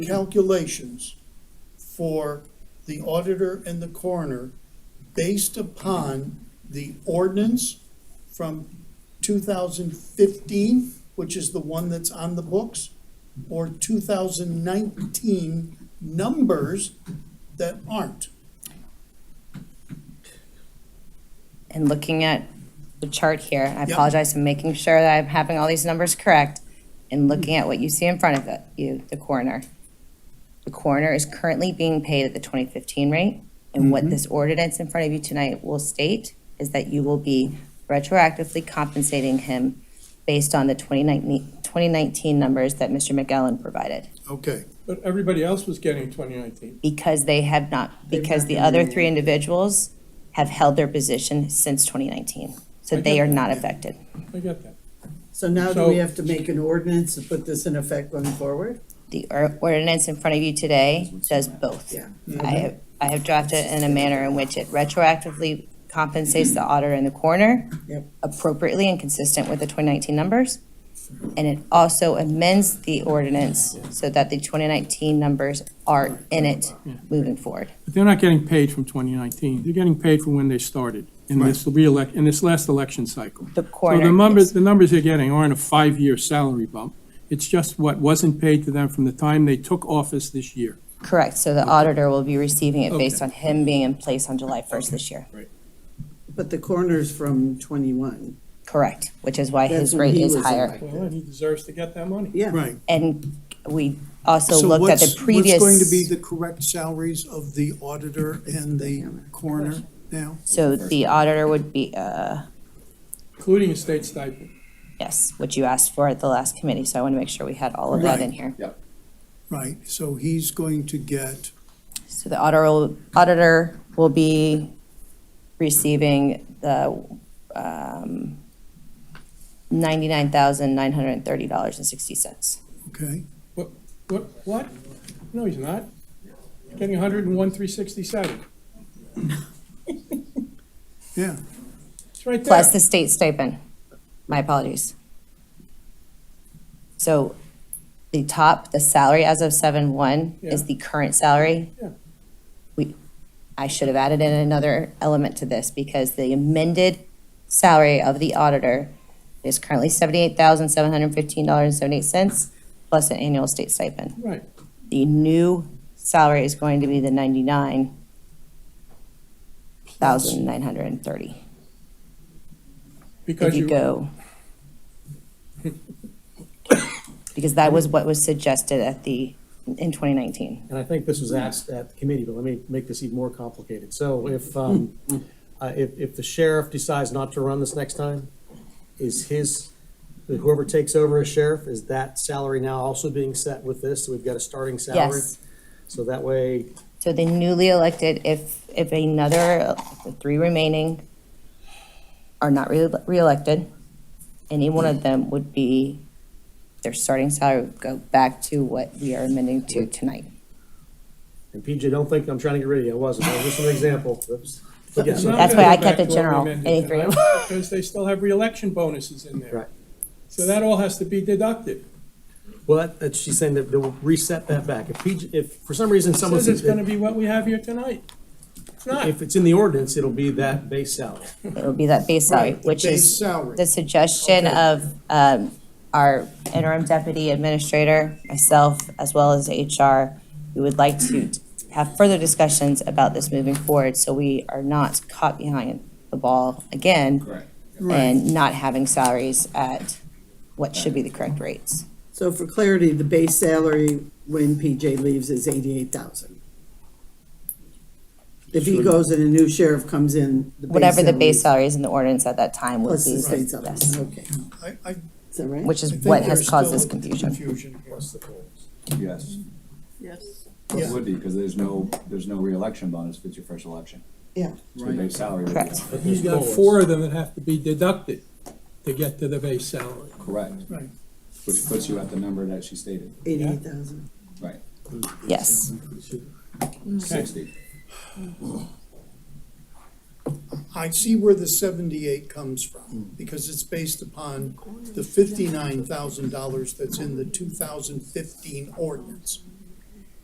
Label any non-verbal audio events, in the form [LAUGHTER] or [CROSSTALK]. calculations for the auditor and the coroner based upon the ordinance from 2015, which is the one that's on the books, or 2019 numbers that aren't. and looking at the chart here, I Yep. apologize, I'm making sure that I'm having all these numbers correct, and looking at what you see in front of the- you, the coroner. The coroner is currently being paid at the 2015 rate, and what this ordinance in front of you tonight will state is that you will be retroactively compensating him based on the 2019 2019 numbers that Mr. McGowan provided, Okay, But everybody else was getting twenty nineteen. because they have not, because not the been other renewed. three individuals have held their position since 2019, so I they get are that. not affected. I get that. So now do So- we have to make an ordinance to put this in effect going forward? The or- ordinance in front of you today does both. Yeah. I have, I have drafted it in a manner in which it retroactively compensates the auditor in the corner Yep. appropriately and consistent with the 2019 numbers. And it also amends the ordinance so that the 2019 numbers are in it moving forward. But they're not getting paid from twenty nineteen. They're getting paid from when they started in this reelect, in this last election cycle. The So corner. the numbers, the numbers they're getting aren't a five-year salary bump. It's just what wasn't paid to them from the time they took office this year. Correct, so the auditor will be receiving it based Okay. on him being in place on July 1st this year. But the coroner's from twenty-one. Correct, which is why That's his when rate he is was higher. elected. Well, and he deserves to get that money. Yeah. right. And we also So looked at the what's- previous. What's going to be the correct salaries of the auditor and the coroner now? So the auditor would be, uh, Including a state stipend. yes, what you asked for at the last committee, so I want to make sure we had all of that in Right. here. Right, so he's going to get, So the auditor, auditor will be receiving the, um, ninety-nine thousand, nine hundred and thirty dollars and sixty cents. okay, What, what, what? No, he's not. He's Getting hundred and one, three sixty-seven. yeah. It's right there. Plus the state stipend. My apologies. So the top, the salary as of seven one is Yeah. the current salary. Yeah. We, I should have added in another element to this because the amended salary of the auditor is currently seventy-eight thousand, seven hundred and fifteen dollars and seventy-eight cents plus an annual state stipend. Right. The new salary is going to be the ninety-nine thousand, nine hundred and thirty. If Because you you, [COUGHS] go. Because that was what was suggested at the, in 2019. and I think this was asked at the committee, but let me make this even more complicated. So if, um, uh, if, if the sheriff decides not to run this next time, is his, whoever takes over as sheriff, is that salary now also being set with this? So we've got a starting salary? Yes. So that way, So the newly elected, if, if another, the three remaining are not re- reelected, any one of them would be, their starting salary would go back to what we are amending to tonight. and PJ, don't think I'm trying to get rid of you, I wasn't, that was just an example. Oops. But yes, It's not That's gonna why go I kept back it to what we general, amended any three of tonight, Because they still have reelection bonuses in there. Right. So that all has to be deducted. Well, that- that, she's saying that they'll reset that back. If PJ, if for some reason someone Says it's says, gonna be what we have here tonight. It's not. if it's in the ordinance, it'll be that base salary. It would be that base salary, Right, the which base is salary. the suggestion of um, our interim deputy administrator, myself, as well as HR. We would like to have further discussions about this moving forward, so we are not caught behind the ball again. And not having salaries at what should be the correct rates. So for clarity, the base salary when PJ leaves is eighty-eight thousand. If he goes and a new sheriff comes in, the base Whatever the base salary salaries in the ordinance at that time would Plus be, the state salary, yes, okay, I, I is that right? which is I think what has there's caused still this confusion. Confusion here. Yes, Yes. it Yeah. would be, because there's no, there's no reelection bonus if it's your first election. Yeah, So your base salary would be. Correct. You've got four of them that have to be deducted to get to the base salary. Correct, Right. which puts you at the number that she stated, eighty-eight thousand. right, Yes, sixty. I see where the seventy-eight comes Hmm. from, because it's based upon the fifty-nine thousand dollars that's in the two thousand fifteen ordinance.